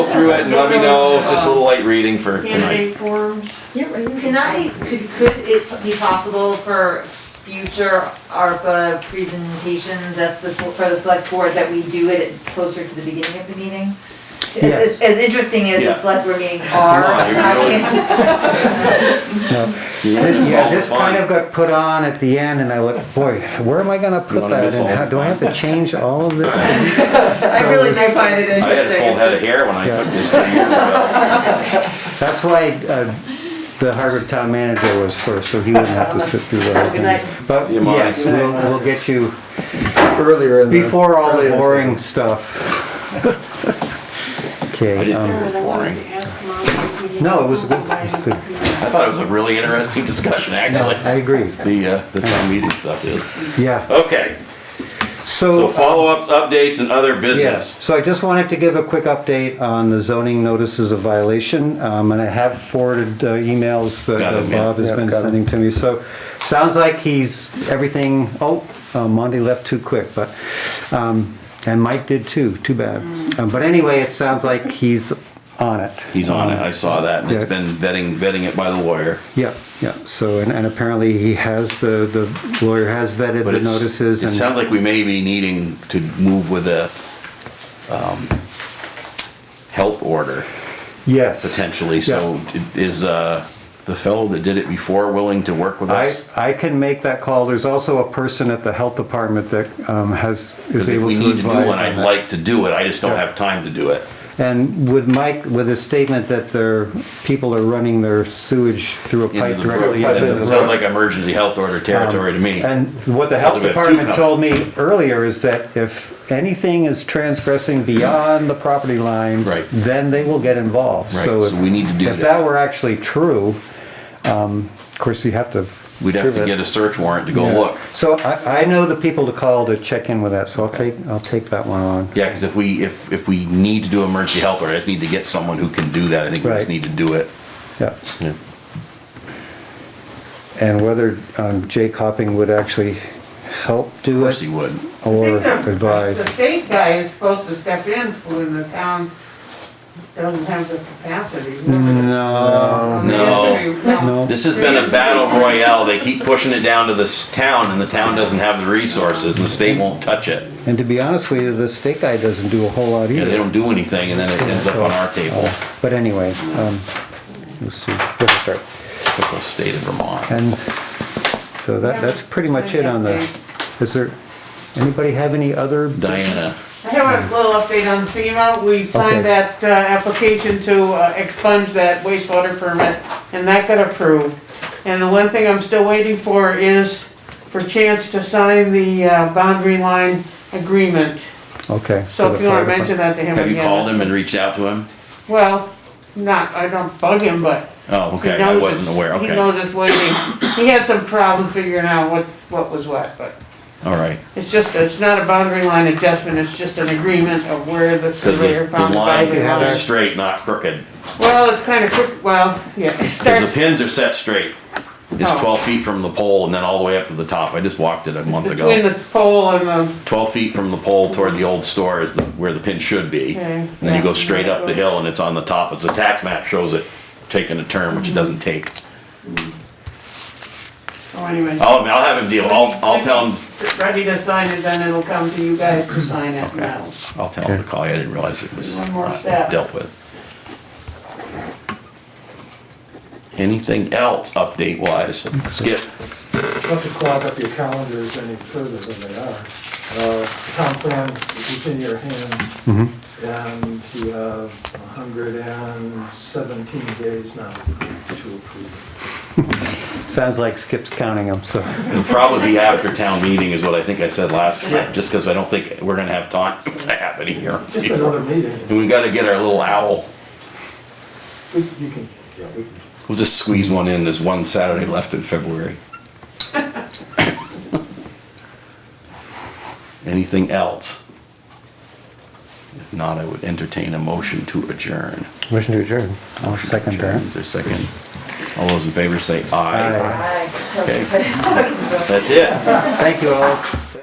Go through it and let me know, just a little light reading for tonight. Candidate forms, Yeah, right here. Can I, could, could it be possible for future ARPA presentations at the, sel- for the select board that we do it closer to the beginning of the meeting? As- As, as interesting as the Yeah. select board meetings are, Come on, you're I really- mean, It's Yeah, all this kind fine. of got put on at the end and I looked, boy, where am I gonna put wanna that? miss And all how, the do I have to change all of this? I So really there's- do find it I interesting. had a full head of hair when I took this two years ago. That's why, uh, the Harvard town manager was first, so he wouldn't have to sit through the whole Good night. thing. But Do you mind? yes, we'll, we'll get you Earlier in the. before all the earlier in boring stuff. I Okay, didn't uh, um, think it was boring. no, it was good, it was good. I thought it was a really interesting discussion, actually. I agree, The, uh, the town meeting stuff is. yeah. Okay, so So, follow-ups, updates, and other yeah, business. so I just wanted to give a quick update on the zoning notices of violation. Um, and I have forwarded uh, emails that Got uh, 'em, yeah. Bob has Yeah, been got 'em. sending to me. So, sounds like he's, everything, oh, uh, Monty left too quick, but, um, and Mike did too, too bad. Um, But anyway, it sounds like he's on it. He's on it, I saw that, and it's Yeah. been vetting, vetting it by the lawyer. Yeah, yeah, so, and, and apparently he has, the, the lawyer has vetted But the it's, notices it and. sounds like we may be needing to move with a, um, health order Yes. potentially, so is, uh, the fellow that did it before willing to work with I, us? I can make that call. There's also a person at the health department that um, has, is Because if able we to need to do advise one, I'd on that. like to do it, I just don't Yeah. have time to do it. And with Mike, with his statement that their, people are running their sewage through a pipe Into the directly brook. into the It sounds road. Um, like emergency health order territory to me. And what the health Sounds like a department cucumber. told me earlier is that if anything is transgressing beyond the property lines, Right. then they will get involved. Right, So so if- we need to do If that that. were actually true, um, of course, you have to. We'd have prove to it. get a search warrant to go Yeah. look. So I, I know the people to call to check in with that, so I'll take, I'll take that one on. Yeah, because if we, if, if we need to do emergency health order, I just need to get someone who can do that, I think we just Right. need to do it. Yeah. And whether um, Jay Copping would actually help Of do course he it would. or I think the- The advise. state guy is supposed to step in when the town doesn't have the capacity. Mm. No. No. No. This has been a battle royale. They keep pushing it down to this town, and the town doesn't have the resources, and the state won't touch it. And to be honest with you, the state guy doesn't do a whole lot Yeah, they either. don't do anything, and then it ends up on our table. But anyway, um, let's see, let's start. Typical state of Vermont. And so that, that's pretty much it on the, is there, anybody have any other? Diana, I have a little update on FEMA. We Okay. signed that uh, application to uh, expunge that wastewater permit, and that got approved. And the one thing I'm still waiting for is for Chance to sign the uh, boundary line agreement. Okay. So if you wanna mention that to him have again. you called him and reached out to him? Well, not, I don't bug him, but Oh, he okay, I knows wasn't it's, aware, he okay. knows it's waiting. He had some problem figuring out what, what was what, but All right, it's just, it's not a boundary line adjustment, it's just an agreement of where the because surveyor the found the line boundary is line. straight, not crooked. Well, it's kind of, crook- well, yeah, it 'Cause starts the pins are set straight. It's Oh. twelve feet from the pole and then all the way up to the top. I just walked it a month between ago. the pole and the, Twelve feet from the pole toward the old store is the- where the pin should be. Okay. And then you go Yeah. straight up the hill and it's on the top. As the tax map shows it taking a turn, which it doesn't take. oh, anyway. I'll, I'll have him deal. I'll, I'll tell him, It's Ready to sign it, then it'll come to you guys to sign it now. I'll tell him to call you. I didn't realize it was One more not step. dealt with. Anything else update wise? Skip. Not to clog up your calendars any further than they are. Uh, Tom plan is in your hands, and you have 117 days now to approve. Sounds like Skip's counting them, so. It'll probably be after town meeting is what I think I said last time, just because I don't think we're gonna have time to have any here. Just another meeting. And we gotta get our little owl. We- You can, yeah, we can. We'll just squeeze one in. There's one Saturday left in February. Anything else? If not, I would entertain a motion to adjourn. Motion to adjourn. I'll second that. Is there a second? All those in favor say aye. Aye. Aye. That's it. Thank you all.